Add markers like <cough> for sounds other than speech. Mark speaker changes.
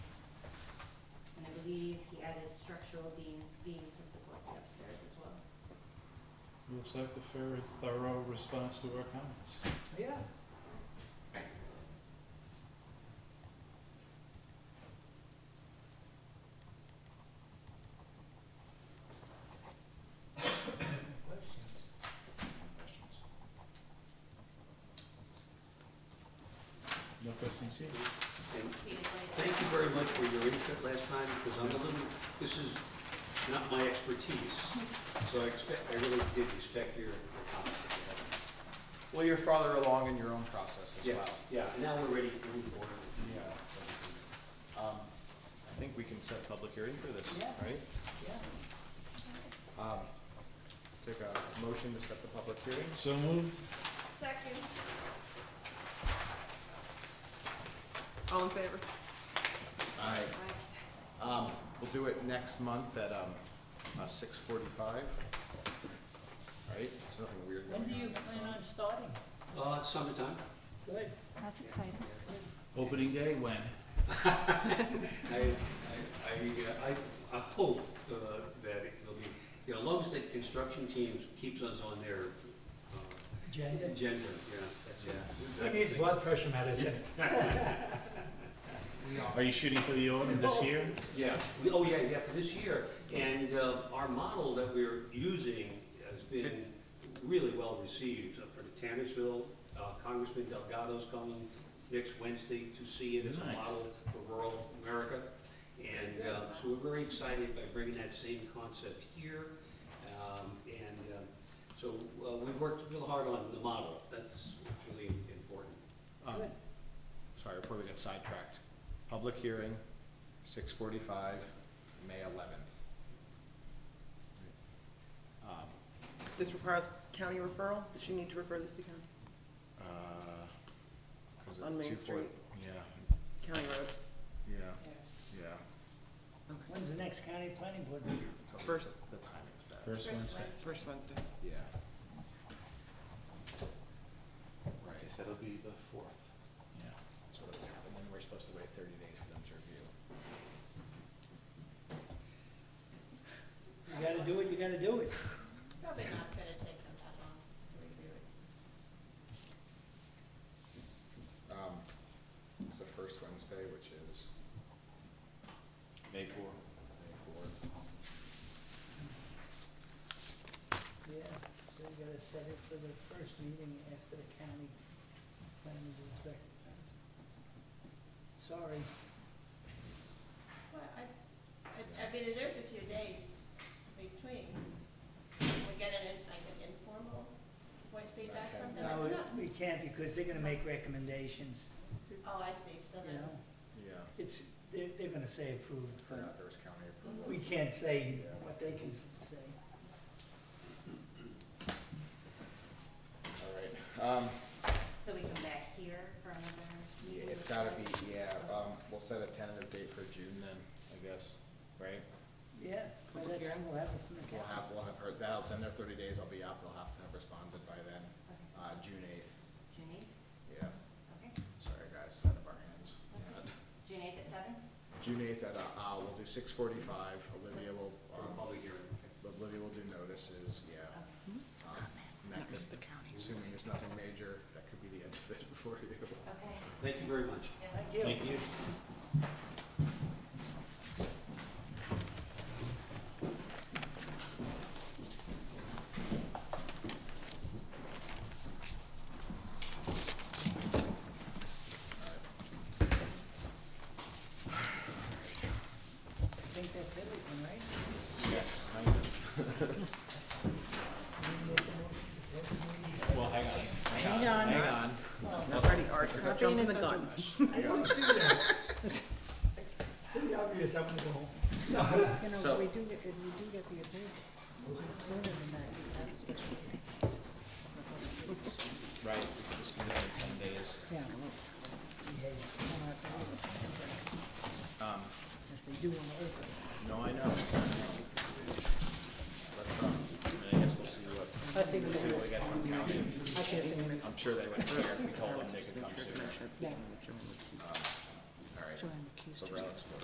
Speaker 1: structural beams, beams to support the upstairs as well.
Speaker 2: Looks like a very thorough response to our comments.
Speaker 3: Yeah. Questions?
Speaker 2: No questions here?
Speaker 4: And Thank you very much for your input last time, because I'm a little, this is not my expertise, so I expect, I really did respect your your comments.
Speaker 3: Well, you're farther along in your own process as
Speaker 4: Yeah,
Speaker 3: well.
Speaker 4: yeah, now we're ready to move forward.
Speaker 3: Yeah. Um, I think we can set a public hearing for this,
Speaker 4: Yeah.
Speaker 3: right? Um, Take a motion to set the public hearing.
Speaker 2: So moved?
Speaker 1: Second.
Speaker 5: All in favor?
Speaker 3: Aye. Um, we'll do it next month at, um, uh, six forty-five. Right, there's nothing weird going
Speaker 6: When
Speaker 3: on.
Speaker 6: do you
Speaker 3: next
Speaker 6: plan
Speaker 3: month.
Speaker 6: on starting?
Speaker 4: Uh, summertime,
Speaker 6: Good.
Speaker 1: That's exciting.
Speaker 2: Opening day when?
Speaker 4: I, I, I, uh, I, I hope, uh, that it'll be, you know, Love's that construction teams keeps us on their, uh,
Speaker 6: Agenda.
Speaker 4: agenda, yeah, yeah.
Speaker 6: Who needs blood pressure medicine?
Speaker 2: Are you shooting for the autumn this year?
Speaker 4: Yeah, we- oh, yeah, yeah, for this year. And uh, our model that we're using has been really well received Uh, for the Tannersville. Uh, Congressman Delgado's coming next Wednesday to see it as a
Speaker 2: Nice.
Speaker 4: model for rural America. And uh, so we're very excited by bringing that same concept here. Um, And uh, so uh, we worked real hard on the model. That's what's really important.
Speaker 3: Um,
Speaker 6: Good.
Speaker 3: Sorry, before we get sidetracked, public hearing, six forty-five, May eleventh. Um,
Speaker 5: This requires county referral? Does she need to refer this to county?
Speaker 3: uh, was it
Speaker 5: On Main
Speaker 3: 240
Speaker 5: Street.
Speaker 3: Yeah,
Speaker 5: County road.
Speaker 3: yeah, yeah.
Speaker 6: When's the next county planning board meeting?
Speaker 3: It's always
Speaker 5: First.
Speaker 3: The the timing's bad.
Speaker 2: First Wednesday.
Speaker 5: First Wednesday.
Speaker 3: Yeah. Right,
Speaker 7: Okay, so it'll be the fourth.
Speaker 2: Yeah.
Speaker 3: that's what was happening, then we're supposed to wait thirty days for them to review.
Speaker 6: You gotta do it, you gotta do it.
Speaker 1: Probably not gonna take them that long, so we can do it.
Speaker 3: Um, it's the first Wednesday, which is
Speaker 2: May four.
Speaker 3: May fourth.
Speaker 6: Yeah, so you gotta set it for the first meeting after the county planning board's recognized. Sorry,
Speaker 1: Well, I, I, I mean, there's a few days between. Can we get an, in- like an informal, what feedback from them?
Speaker 6: no,
Speaker 1: It's not,
Speaker 6: we can't because they're gonna make recommendations,
Speaker 1: oh, I see, so
Speaker 6: you
Speaker 1: then,
Speaker 6: know?
Speaker 3: Yeah,
Speaker 6: It's, they're, they're gonna say approved,
Speaker 3: yeah,
Speaker 6: but
Speaker 3: there was county approval.
Speaker 6: we can't say what they can s- say.
Speaker 3: All right, um,
Speaker 1: so we come back here for another
Speaker 3: yeah,
Speaker 1: meeting?
Speaker 3: it's gotta be, yeah, um, we'll set a tentative date for June then, I guess, right?
Speaker 6: Yeah, by that time we'll have it from the
Speaker 3: We'll
Speaker 6: county.
Speaker 3: have, we'll have heard, that'll, then their thirty days, I'll be out, they'll have to have responded by then,
Speaker 1: Okay.
Speaker 3: uh, June eighth,
Speaker 1: June eighth,
Speaker 3: yeah,
Speaker 1: okay,
Speaker 3: sorry guys, it's out of our hands.
Speaker 1: Okay. June eighth at seven?
Speaker 3: June eighth at, uh, uh, we'll do six forty-five, Olivia will,
Speaker 4: For a
Speaker 3: um,
Speaker 4: public hearing.
Speaker 3: Olivia will do notices, yeah. Um, and that could- Assuming there's nothing major, that could be the end of it <laughs> for you.
Speaker 1: Okay,
Speaker 4: Thank you very much.
Speaker 1: yeah.
Speaker 6: Thank you.
Speaker 2: Thank you.
Speaker 6: I think that's everything, right?
Speaker 2: Well, hang on.
Speaker 6: Hang on.
Speaker 3: Hang on.
Speaker 5: Already art, you're not jumping the gun.
Speaker 6: I don't do <laughs> that. It's pretty obvious, I'm gonna go home.
Speaker 8: You know,
Speaker 3: So-
Speaker 8: we do get, if we do get the advance, sooner than that.
Speaker 3: Right, this is like ten days.
Speaker 8: Yeah,
Speaker 3: Um,
Speaker 8: because they do want to open.
Speaker 3: no, I know. But, um, I guess we'll see what,
Speaker 8: I see the
Speaker 3: see what we get from council.
Speaker 8: I can't see them.
Speaker 3: I'm sure they would care if we told them they could come sooner.
Speaker 8: Yeah.
Speaker 3: Um, All right,
Speaker 8: Joanne recused
Speaker 3: so
Speaker 8: herself.
Speaker 3: relics,